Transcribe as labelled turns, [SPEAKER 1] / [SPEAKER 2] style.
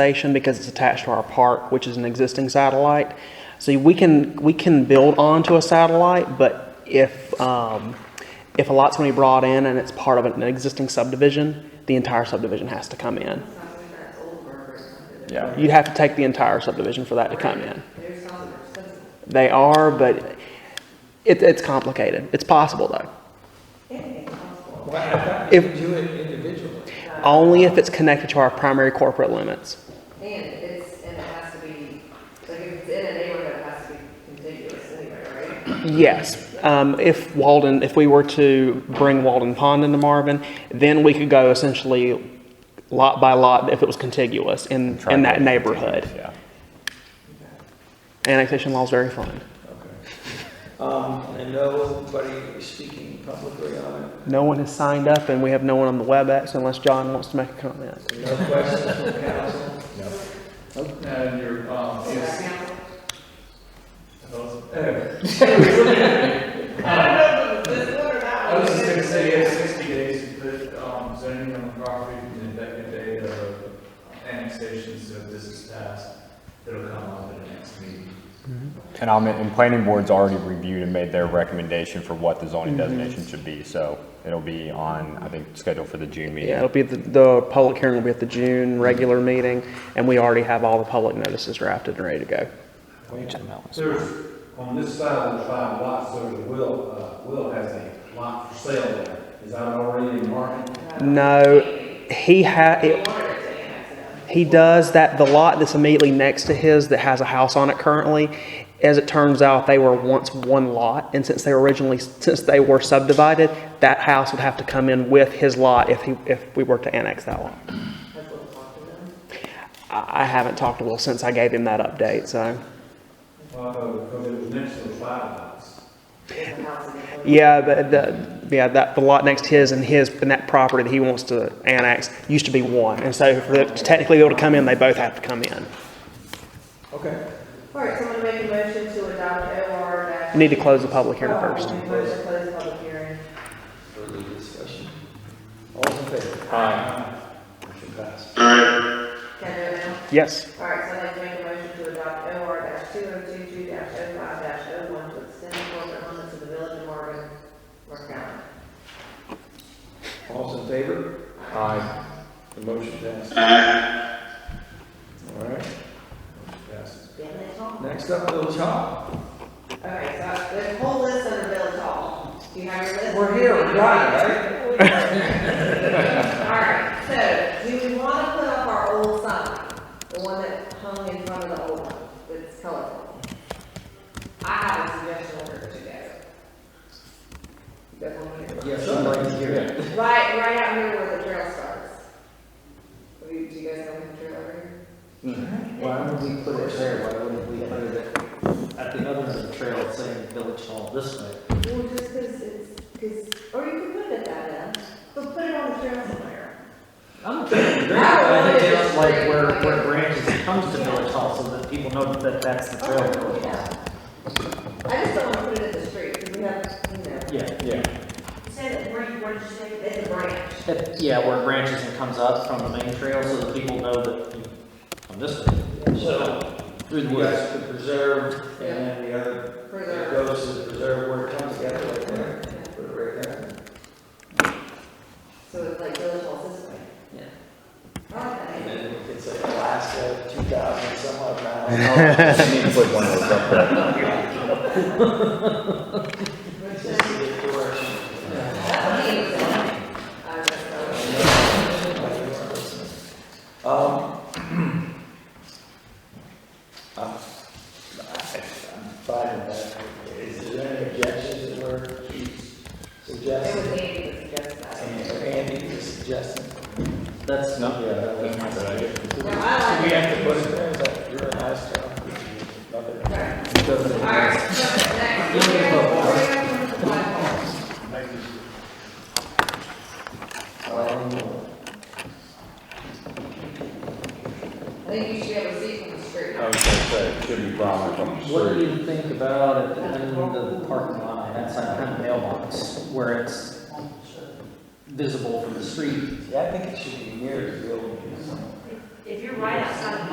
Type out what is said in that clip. [SPEAKER 1] station because it's attached to our park, which is an existing satellite. See, we can, we can build onto a satellite, but if, um, if a lot's gonna be brought in and it's part of an existing subdivision, the entire subdivision has to come in.
[SPEAKER 2] Yeah.
[SPEAKER 1] You'd have to take the entire subdivision for that to come in. They are, but it, it's complicated. It's possible though. If-
[SPEAKER 3] do it individually.
[SPEAKER 1] Only if it's connected to our primary corporate limits.
[SPEAKER 4] And it's, and it has to be, like, if it's in a neighborhood, it has to be contiguous anyway, right?
[SPEAKER 1] Yes, um, if Walden, if we were to bring Walden Pond into Marvin, then we could go essentially lot by lot if it was contiguous in,
[SPEAKER 2] Try
[SPEAKER 1] in
[SPEAKER 2] to
[SPEAKER 1] that
[SPEAKER 2] make it
[SPEAKER 1] neighborhood.
[SPEAKER 2] continuous, Yeah.
[SPEAKER 1] Annexation law is very fun.
[SPEAKER 3] Um, and nobody is speaking publicly on it.
[SPEAKER 1] No one has signed up and we have no one on the WebEx unless John wants to make a comment.
[SPEAKER 3] No questions from council.
[SPEAKER 5] And your, um, is, I was just gonna say, you have sixty days to put, um, zoning on the property from the effective date of annexation, so if this is passed, it'll come up at the next meeting.
[SPEAKER 2] And I'm, and planning board's already reviewed and made their recommendation for what the zoning designation should be, so it'll be on, I think, scheduled for the June
[SPEAKER 1] Yeah,
[SPEAKER 2] meeting.
[SPEAKER 1] it'll be, the, the public hearing will be at the June regular meeting and we already have all the public notices drafted and ready to go.
[SPEAKER 6] There's, on this side of the five lots, there's a Will, uh, Will has a lot for sale there. Is that already in market?
[SPEAKER 1] No, he ha, it- he does that, the lot that's immediately next to his that has a house on it currently, as it turns out, they were once one lot, and since they were originally, since they were subdivided, that house would have to come in with his lot if he, if we were to annex that lot. I, I haven't talked to Will since I gave him that update, so,
[SPEAKER 6] Well, Uh, because it was next to the five lots.
[SPEAKER 1] yeah, but the, yeah, that, the lot next to his and his, and that property that he wants to annex used to be one, and so for it to technically be able to come in, they both have to come in.
[SPEAKER 3] Okay.
[SPEAKER 4] All right, someone make a motion to adopt OR dash.
[SPEAKER 1] You Need to close the public hearing first.
[SPEAKER 4] Motion to close the public hearing.
[SPEAKER 3] Further discussion? All in favor?
[SPEAKER 5] Aye.
[SPEAKER 3] Motion passed.
[SPEAKER 4] Can I do it now?
[SPEAKER 1] Yes.
[SPEAKER 4] All right, so I'd like to make a motion to adopt OR dash two oh two two dash oh five dash oh one to extend the corporate limits of the village of Marvin, Mark County.
[SPEAKER 3] All in favor?
[SPEAKER 5] Aye.
[SPEAKER 3] The motion passed. All right. Motion passes.
[SPEAKER 4] Damn it, Tom.
[SPEAKER 3] Next up, Village Hall.
[SPEAKER 4] Okay, so there's a whole list under Village Hall. Do you have your list?
[SPEAKER 3] We're here, we got
[SPEAKER 4] it, right? Alright, so do we want to put up our old sign? The one that hung in front of the old one, that's colorful? I have a suggestion over to go. That one here.
[SPEAKER 3] Yes, I'd like to hear it.
[SPEAKER 4] Right, right out here where the trail starts. Do you do you guys know where the trail over here?
[SPEAKER 7] Why wouldn't we put it there? Why wouldn't we put it at the other end of the trail saying Village Hall this way?
[SPEAKER 4] Well, just because it's, because, or you could put it at that end, but put it on the trail somewhere.
[SPEAKER 7] I'm thinking great, but I think it's like where, where branches it comes to Village Hall so that people know that that's the trail. to Village
[SPEAKER 4] Oh,
[SPEAKER 7] Hall.
[SPEAKER 4] Yeah. I just don't want to put it in the street, because we have, you know,
[SPEAKER 7] Yeah,
[SPEAKER 2] Yeah.
[SPEAKER 4] it's a branch.
[SPEAKER 7] It- yeah, where it branches and comes up from the main trail so that people know that you come this way.
[SPEAKER 3] So,
[SPEAKER 7] Through the
[SPEAKER 3] you
[SPEAKER 7] woods.
[SPEAKER 3] guys could preserve, and then the other
[SPEAKER 4] for
[SPEAKER 3] It
[SPEAKER 4] the-
[SPEAKER 3] goes to the preserve where it comes together like that, put it right there.
[SPEAKER 4] So it's like village hall this way.
[SPEAKER 7] Yeah.
[SPEAKER 3] And
[SPEAKER 4] Okay.
[SPEAKER 3] then it's like Alaska, two thousand some odd
[SPEAKER 2] You need to put one of those up there.
[SPEAKER 4] Which is- that's
[SPEAKER 3] miles.
[SPEAKER 4] what he was saying. I was like, oh.
[SPEAKER 3] Um, I'm, I'm fine with that. Is there any objections that were
[SPEAKER 4] It was
[SPEAKER 3] suggested?
[SPEAKER 4] Andy that suggested that.
[SPEAKER 3] And Andy was suggesting.
[SPEAKER 7] That's,
[SPEAKER 3] Yeah, that's not a idea.
[SPEAKER 4] No, I
[SPEAKER 3] We
[SPEAKER 4] like it.
[SPEAKER 3] have to put it there, like, you're a nice job. Nothing.
[SPEAKER 4] Right.
[SPEAKER 3] Doesn't-
[SPEAKER 4] All right, so next, we have, we have the flagpole.
[SPEAKER 3] Um,
[SPEAKER 4] I think you should have a seat from the street.
[SPEAKER 2] I was gonna say, it should be prominent on the
[SPEAKER 7] what do
[SPEAKER 2] street.
[SPEAKER 7] you think about at the end of the parking lot, that's like kind of mailbox, where it's visible from the street?
[SPEAKER 3] Yeah, I think it should be near the building.
[SPEAKER 8] If you're
[SPEAKER 4] you're right outside of